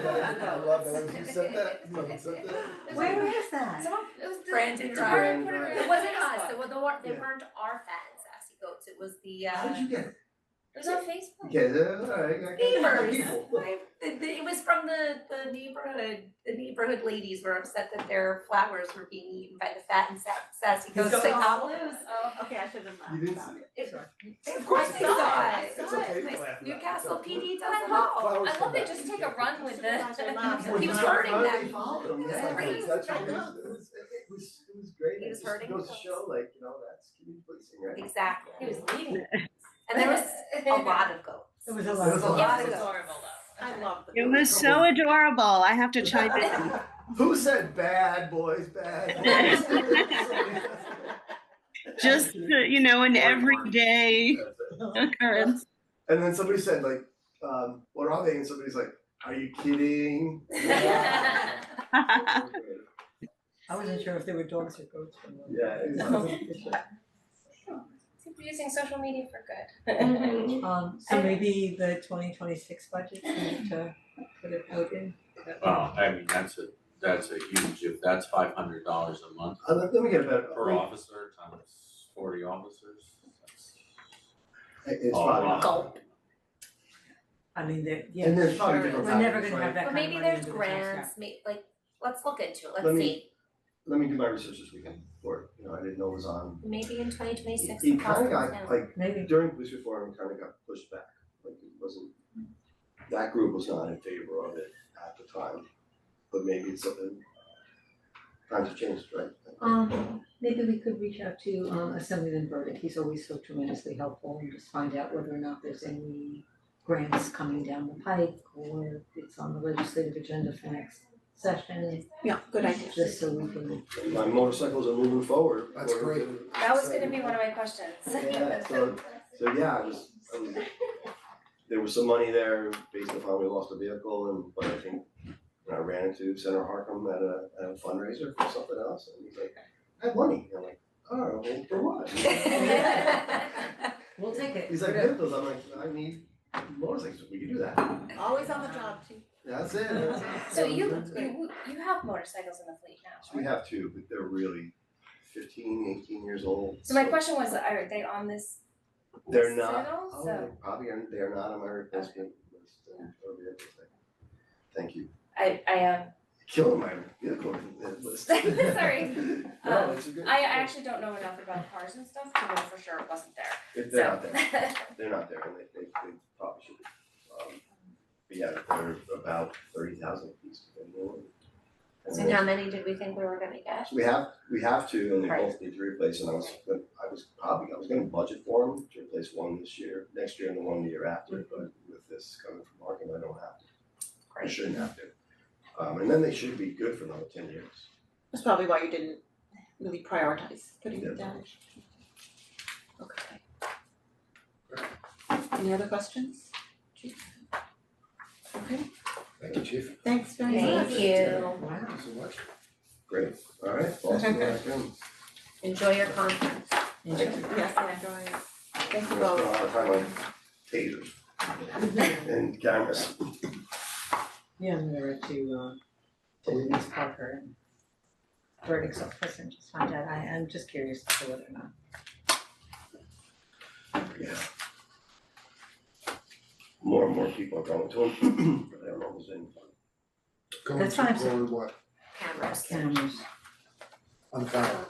that, I love that, when you said that, when you said that. Where is that? Someone, it was the. Brandon the Ryan. department put it Ryan. in It wasn't us, Facebook. it was, they weren't, they Yeah. weren't our fans, sassy goats, it was the, How uh, did you get it? it was on Facebook. Yeah, that's all right, I got Neighbors. people. The- the- It was from the, the neighborhood, the neighborhood ladies were upset that their flowers were being eaten by the fat and sa- sassy goats Don't at Cobbles. lose. Oh, okay, I should have You laughed didn't about see it. it? It- Sorry. Of course they saw it. It's okay, you can My laugh about it. Newcastle PD does I it love- all. Flowers Oh, I come love they back. just take a run Well, with the. He was not hurting funny, that he followed him, That's yeah, crazy. that's I what it know. is. It was, it was, it was great, He it was just hurting goes to us. show like, you know, that's community policing, right? Exactly. He was leaving. And there was a lot of goats. It was a lot. It was a A lot of It was adorable though. I love goats. the. It was so adorable. I have to chime in. Who said bad boys, bad boys? Just, you know, an everyday occurrence. And then somebody said like, um, what are they? And somebody's like, are you kidding? Yeah, Yeah. I wasn't sure if they were dogs or goats. or what. it's- People using social media for Mhm. good. Um, so maybe the twenty twenty-six budget, we need to put it out in. Well, I mean, that's a, that's a huge, if that's five hundred dollars a month Uh, let let me get a better. per officer times forty officers, that's It's a lot. probably, Gulp. I mean, there, yeah. and there's probably different We're never factors, gonna have that right? But kind of maybe money there's into the tax cap. grants, may, like, let's look into it, Let let's me- see. Let me do my research this weekend for it, you know, I didn't know it was on. Maybe in twenty twenty-six. It kind of got, like, Maybe. during police reform, it kind of got pushed back, like it wasn't, that group was not in favor of it at the time. But maybe it's something, times have changed, right? Um, maybe we could reach out to um Assemblyman Burdick, he's always so tremendously helpful and just find out whether or not there's any grants coming down the pike or it's on the legislative agenda for next session, Yeah, good idea. just so we can. And My motorcycles are moving forward. That's great. That was gonna be one of my questions. Yeah, so, so yeah, I was, I was, there was some money there based upon we lost a vehicle and, but I think I ran into Senator Harkam at a, at a fundraiser for something else and he's like, I have money. And I'm like, oh, well, for what? We'll take it. He's like, vehicles, I'm like, I need motorcycles, we can do that. Always on the job, chief. That's it, that's it. So you, That's it. you, you have motorcycles in the fleet now, We right? have two, but they're really 15, 18 years old. So my question was, are they on this They're not, schedule? Oh, So they probably are, they are not on my replacement list, and or the other thing. Thank you, I, I, um, killing my vehicle list. Sorry. Um, No, it's a good. I, I actually don't know enough about cars and stuff to know for sure it wasn't there. If they're so- not there, they're not there, and they, they, they probably should, um, but yeah, they're about thirty thousand pieces. So how many did we think we were gonna get? So we have, we have to, and they Right. both need to replace, and I was, but I was probably, I was gonna budget for them to replace one this year, next year and the one the year after, but with this coming from Markham, I don't have to. I Mm-hmm. Right. shouldn't have to. Um, and then they should be good for another ten years. That's probably why you didn't really prioritize putting They're it down. Okay. Any other questions? Chief? Okay, Thank you, chief. thanks very much. Thank you, Wow. Thank you so much. Great, alright, Boston, I enjoy your conference. Yes, I enjoy it. Thank you We're gonna spend a both. lot of time on tasers and cameras. Yeah, I'm gonna write to uh to Denise Parker and Verdict Office and just find out, I I'm just curious as to whether or not. Yeah. More and more people are going to them, but I don't know who's in. Going That's to fine, sir. going what? Cameras. Cameras. On camera.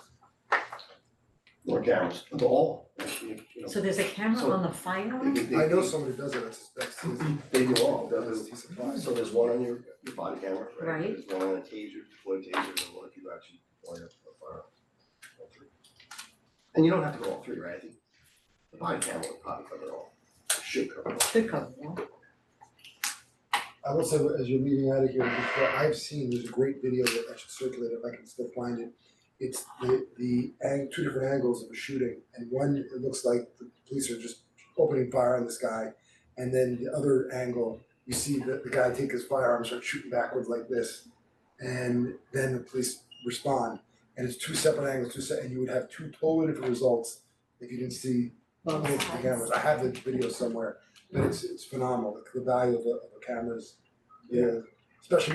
More cameras, the all, you know, So there's a camera on the firearm? they, they, I know they, somebody does it, it's, that's, that's, they do all, that's there's, T supplies. so there's one on your, your body camera, right? Right. There's one on a taser, deployed taser, and one if you actually deploy a a firearm. uh, All three. And you don't have to go all three, right? I think The body camera would probably cover it all, should cover it all. Good call, yeah. I will say, as you're leaving out of here, before, I've seen, there's a great video that I should circulate if I can still find it. It's the, the, ang- two different angles of a shooting, and one, it looks like the police are just opening fire on this guy. And then the other angle, you see the, the guy take his firearm, start shooting backwards like this. And then the police respond, and it's two separate angles, two se- and you would have two totally different results if you didn't see Both Multiple sides. cameras, I have the video somewhere, but it's it's phenomenal, the the value of a of a camera's, yeah, especially